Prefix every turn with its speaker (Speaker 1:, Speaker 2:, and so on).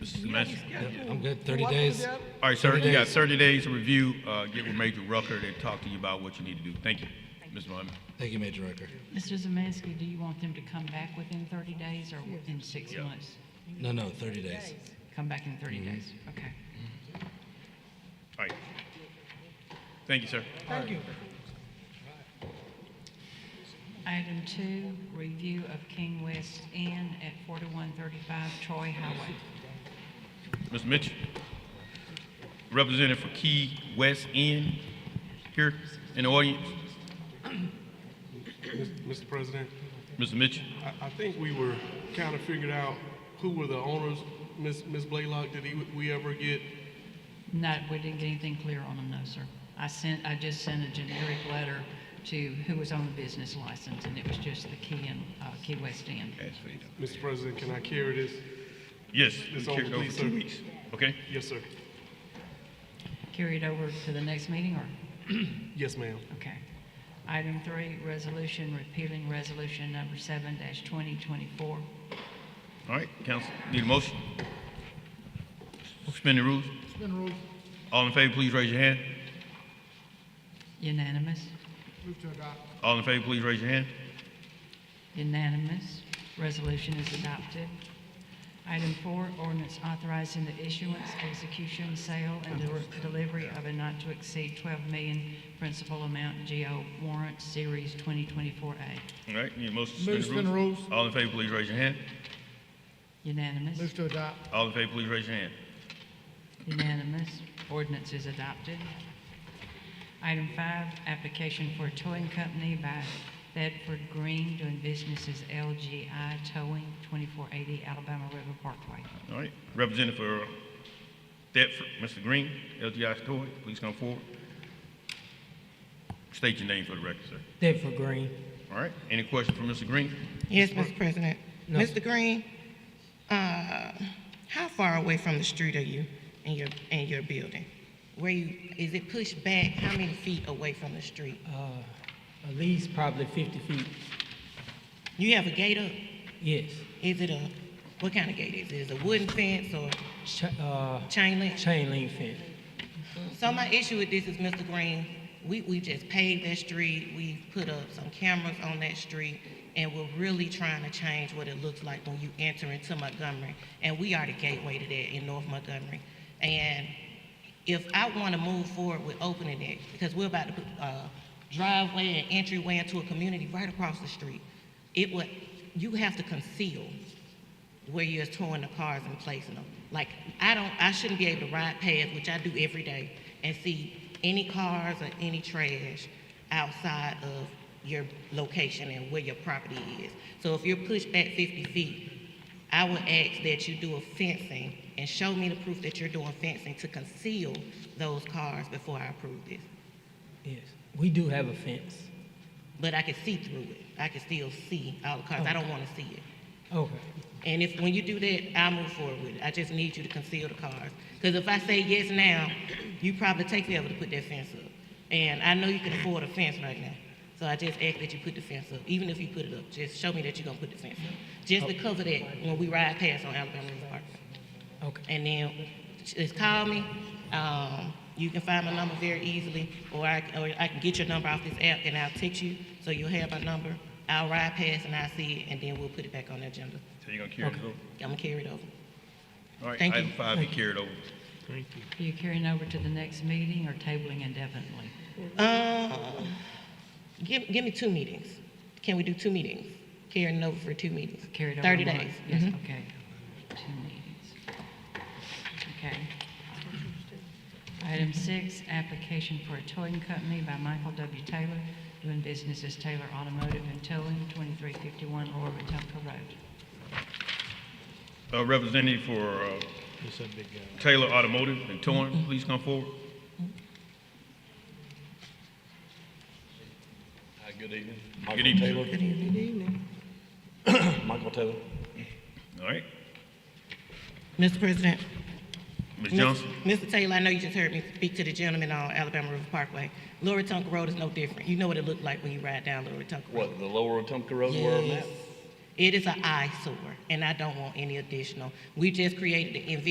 Speaker 1: Mr. Seleski?
Speaker 2: I'm good, 30 days.
Speaker 1: All right, sir, you got 30 days to review, uh, get with Major Rucker and talk to you about what you need to do. Thank you, Mr. Muhammad.
Speaker 2: Thank you, Major Rucker.
Speaker 3: Mr. Zemeski, do you want them to come back within 30 days or within six months?
Speaker 2: No, no, 30 days.
Speaker 3: Come back in 30 days, okay.
Speaker 1: All right. Thank you, sir.
Speaker 4: Thank you.
Speaker 3: Item two, review of King West Inn at 4135 Troy Highway.
Speaker 1: Mr. Mitchell, representative for Key West End here in the audience.
Speaker 5: Mr. President,
Speaker 1: Mr. Mitchell,
Speaker 5: I, I think we were kind of figured out who were the owners. Ms. Ms. Blaylock, did he, we ever get?
Speaker 3: No, we didn't get anything clear on them, no, sir. I sent, I just sent a generic letter to who was on the business license, and it was just the Key and, uh, Key West Inn.
Speaker 5: Mr. President, can I carry this?
Speaker 1: yes, we
Speaker 5: It's over,
Speaker 1: carried it over
Speaker 5: please,
Speaker 1: two
Speaker 5: sir.
Speaker 1: weeks, okay?
Speaker 5: Yes, sir.
Speaker 3: Carry it over to the next meeting, or?
Speaker 5: Yes, ma'am.
Speaker 3: Okay. Item three, resolution repealing resolution number seven dash 2024.
Speaker 1: All right, council, need a motion? Suspend the rules? All in favor, please raise your hand.
Speaker 3: Unanimous?
Speaker 1: All in favor, please raise your hand.
Speaker 3: Unanimous. Resolution is adopted. Item four, ordinance authorizing the issuance, execution, sale, and de- delivery of a not to exceed 12 million principal amount GO warrant series 2024A.
Speaker 1: All right, need a motion
Speaker 4: Move
Speaker 1: to
Speaker 4: to
Speaker 1: suspend the
Speaker 4: suspend
Speaker 1: rules?
Speaker 4: the rules.
Speaker 1: All in favor, please raise your hand.
Speaker 3: Unanimous?
Speaker 4: Move to adopt.
Speaker 1: All in favor, please raise your hand.
Speaker 3: Unanimous. Ordinance is adopted. Item five, application for a towing company by Bedford Green doing business as LGI Towing, 2480 Alabama River Parkway.
Speaker 1: All right, representative for Thetford, Mr. Green, LGI Story, please come forward. State your name for the record, sir.
Speaker 6: Deptford Green.
Speaker 1: All right, any questions for Mr. Green?
Speaker 7: Yes, Mr. President. Mr. Green, uh, how far away from the street are you in your, in your building? Where you, is it pushed back, how many feet away from the street?
Speaker 6: Uh, at least probably 50 feet.
Speaker 7: You have a gate up?
Speaker 6: Yes.
Speaker 7: Is it a, what kind of gate is it? Is it a wooden fence or
Speaker 6: Ch- uh,
Speaker 7: chain link?
Speaker 6: chain link fence.
Speaker 7: So my issue with this is, Mr. Green, we, we just paved that street, we put up some cameras on that street, and we're really trying to change what it looks like when you enter into Montgomery. And we are the gateway to that in North Montgomery. And if I want to move forward with opening it, because we're about to put, uh, driveway and entryway into a community right across the street, it would, you have to conceal where you're towing the cars and placing them. Like, I don't, I shouldn't be able to ride past, which I do every day, and see any cars or any trash outside of your location and where your property is. So if you're pushed back 50 feet, I would ask that you do a fencing and show me the proof that you're doing fencing to conceal those cars before I approve this.
Speaker 6: Yes. We do have a fence.
Speaker 7: But I can see through it. I can still see all the cars. I don't want to see it.
Speaker 6: Okay.
Speaker 7: And if, when you do that, I'll move forward with it. I just need you to conceal the cars. Because if I say yes now, you probably take forever to put that fence up. And I know you can afford a fence right now. So I just ask that you put the fence up. Even if you put it up, just show me that you're gonna put the fence up. Just to cover that when we ride past on Alabama River Parkway.
Speaker 6: Okay.
Speaker 7: And then just call me. Um, you can find my number very easily, or I, or I can get your number off this app and I'll text you so you'll have my number. I'll ride past and I'll see it, and then we'll put it back on the agenda.
Speaker 1: So you're gonna carry it over?
Speaker 7: I'm gonna carry it over.
Speaker 1: All right,
Speaker 7: Thank you.
Speaker 1: item five, be carried over.
Speaker 3: Are you carrying over to the next meeting or tabling indefinitely?
Speaker 7: Uh, give, give me two meetings. Can we do two meetings? Carrying it over for two meetings.
Speaker 3: Carried over?
Speaker 7: Thirty
Speaker 3: one.
Speaker 7: days.
Speaker 3: Yes,
Speaker 7: Mhm.
Speaker 3: okay. Two meetings. Okay. Item six, application for a towing company by Michael W. Taylor doing business as Taylor Automotive and Towing, 2351 Lower Wetumpka Road.
Speaker 1: Uh, representative for, uh, Taylor Automotive and Torrance, please come forward.
Speaker 8: Hi, good evening.
Speaker 1: Good evening, sir.
Speaker 8: Michael Taylor. Michael Taylor.
Speaker 1: All right,
Speaker 7: Mr. President.
Speaker 1: Ms.
Speaker 7: Miss-
Speaker 1: Johnson,
Speaker 7: Mr. Taylor, I know you just heard me speak to the gentleman on Alabama River Parkway. Lower Tonka Road is no different. You know what it looked like when you ride down Lower Tonka Road.
Speaker 8: What, the lower Wetumpka Road where I'm at?
Speaker 7: Yes. It is an eyesore, and I don't want any additional. We just created the environment